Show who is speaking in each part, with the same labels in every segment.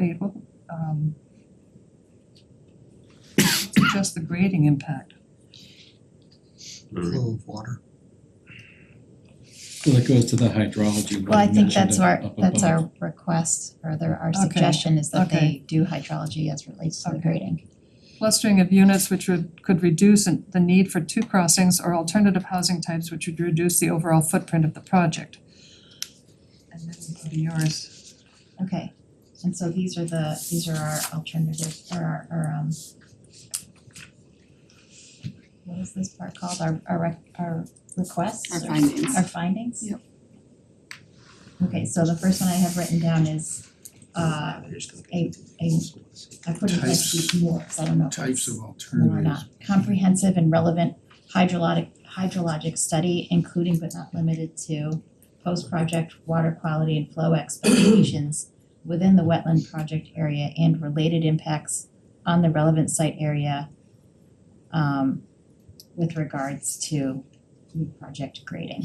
Speaker 1: isn't um, just the grading impact.
Speaker 2: flow of water.
Speaker 3: Well, that goes to the hydrology
Speaker 4: Well, I
Speaker 3: one
Speaker 4: think
Speaker 3: mentioned
Speaker 4: that's our,
Speaker 3: up
Speaker 4: that's
Speaker 3: above.
Speaker 4: our request or their, our
Speaker 1: Okay,
Speaker 4: suggestion is that
Speaker 1: okay.
Speaker 4: they do hydrology as relates to the
Speaker 1: Okay.
Speaker 4: grading.
Speaker 1: Clustering of units which would could reduce an- the need for two crossings or alternative housing types which would reduce the overall footprint of the project. And then we go to yours.
Speaker 4: Okay, and so these are the, these are our alternative or our, our um what is this part called? Our our rec- our requests
Speaker 5: Our
Speaker 4: or-
Speaker 5: findings.
Speaker 4: Our findings?
Speaker 5: Yep.
Speaker 4: Okay, so the first one I have written down is uh a a I put in S
Speaker 2: Types-
Speaker 4: D more, 'cause I don't know if it's-
Speaker 2: Types of
Speaker 4: or
Speaker 2: alternatives.
Speaker 4: not. Comprehensive and relevant hydrologic hydrologic study, including but not limited to post-project water quality and flow expectations within the wetland project area and related impacts on the relevant site area um with regards to new project grading.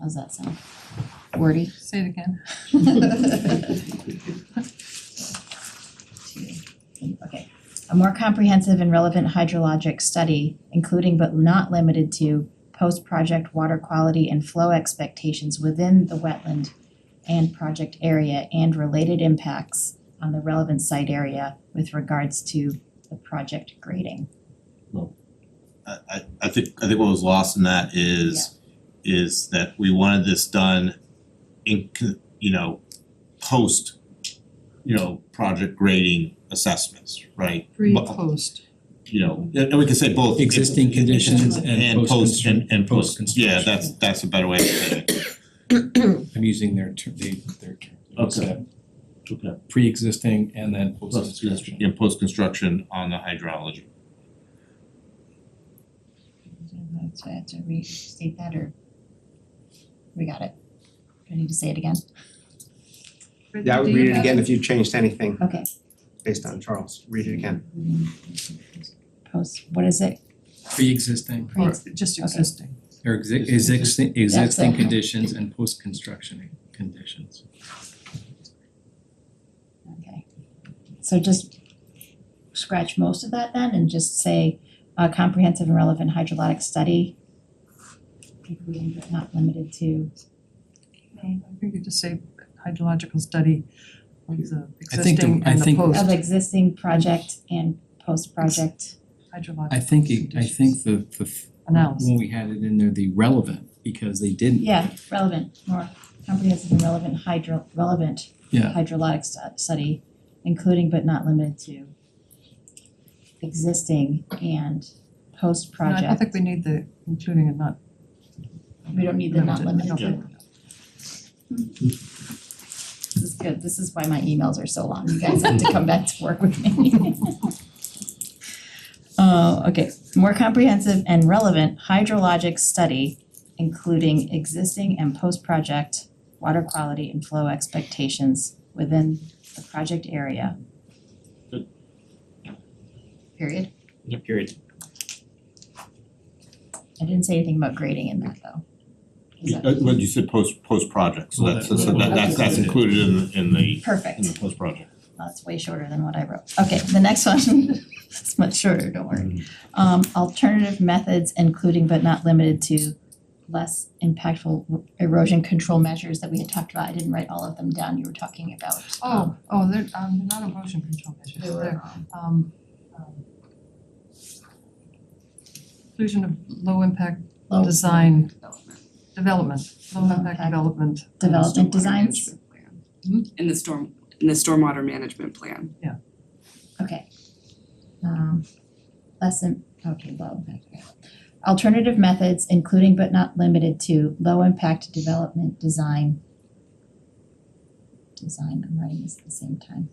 Speaker 4: How's that sound? Wordy?
Speaker 1: Say it again.
Speaker 4: Okay, a more comprehensive and relevant hydrologic study, including but not limited to post-project water quality and flow expectations within the wetland and project area and related impacts on the relevant site area with regards to the project grading.
Speaker 6: I I I think I think what was lost in that is is that we wanted this done in co- you know, post, you know, project grading assessments, right?
Speaker 1: Pre,
Speaker 6: Well-
Speaker 1: post.
Speaker 6: You know, and and we can say both.
Speaker 3: Existing conditions and
Speaker 6: And post
Speaker 3: post-constru-
Speaker 6: and and post, yeah,
Speaker 3: post-construction.
Speaker 6: that's that's a better way to say it.
Speaker 3: I'm using their term, they, their term.
Speaker 6: Okay. Okay.
Speaker 3: Pre-existing and then
Speaker 6: Post
Speaker 3: post-construction.
Speaker 6: yeah, post construction on the hydrology.
Speaker 4: So I have to restate that or we got it? Do I need to say it again?
Speaker 7: Yeah, I would
Speaker 1: Do you
Speaker 7: read it
Speaker 1: have-
Speaker 7: again if you changed anything
Speaker 4: Okay.
Speaker 7: based on Charles, read it again.
Speaker 4: Post, what is it?
Speaker 3: Pre-existing
Speaker 1: Or just existing.
Speaker 3: or exi- existing
Speaker 4: That's
Speaker 3: existing
Speaker 4: it.
Speaker 3: conditions and post-construction conditions.
Speaker 4: Okay. So just scratch most of that then and just say a comprehensive and relevant hydrologic study. including but Not limited to,
Speaker 1: I think you just say hydrological study of the
Speaker 3: I think the-
Speaker 1: existing
Speaker 3: I
Speaker 1: and the
Speaker 3: think-
Speaker 4: of
Speaker 1: post
Speaker 4: existing project and post-project.
Speaker 1: hydrological
Speaker 3: I think, it- I think the the, f-
Speaker 1: analysis.
Speaker 3: when we had it in there, the relevant, because they didn't.
Speaker 4: Yeah, relevant, more comprehensive and relevant hydro, relevant
Speaker 3: Yeah.
Speaker 4: hydrologic stu- study, including but not limited to existing and
Speaker 1: No, I
Speaker 4: post-project.
Speaker 1: don't think we need the including and not
Speaker 4: We don't need the not
Speaker 1: limited.
Speaker 4: limited to. This is good, this is why my emails are so long, you guys have to come back to work with me. Uh, okay, more comprehensive and relevant hydrologic study, including existing and post-project water quality and flow expectations within the project area.
Speaker 6: Good.
Speaker 4: Period,
Speaker 6: Period.
Speaker 4: I didn't say anything about grading in that though. Is that-
Speaker 6: Well, Uh, you said post post project, so
Speaker 3: Well,
Speaker 6: that's
Speaker 3: that-
Speaker 6: so that that's that's included in in the
Speaker 4: Perfect.
Speaker 6: in the post project.
Speaker 4: That's way shorter than what I wrote. Okay, the next one is much shorter, don't worry. Um, alternative methods, including but not limited to less impactful erosion control measures that we had talked about. I didn't write all of them down. You were talking about.
Speaker 1: Oh, oh, they're um not erosion control measures,
Speaker 4: They
Speaker 1: they're
Speaker 4: were,
Speaker 1: um
Speaker 4: um,
Speaker 1: um inclusion of low impact
Speaker 4: low
Speaker 1: design
Speaker 5: Development.
Speaker 1: development, low impact
Speaker 4: Impact
Speaker 1: development.
Speaker 4: development
Speaker 5: Stormwater
Speaker 4: designs.
Speaker 5: management plan. In the storm, in the stormwater management plan.
Speaker 4: Okay. Um, less than, okay, low impact, okay. Alternative methods, including but not limited to low impact development design. Design, I'm writing this at the same time.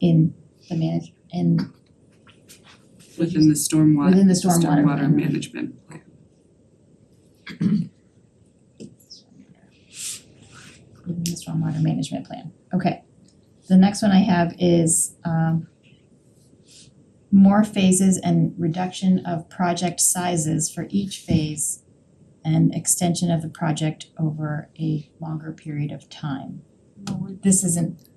Speaker 4: In the manage, in,
Speaker 5: Within the stormwater.
Speaker 4: Within the stormwater
Speaker 5: Stormwater
Speaker 4: management.
Speaker 5: management plan.
Speaker 4: within the stormwater management plan, okay. The next one I have is, um, more phases and reduction of project sizes for each phase and extension of the project over a longer period of time.
Speaker 1: No, we
Speaker 4: This isn't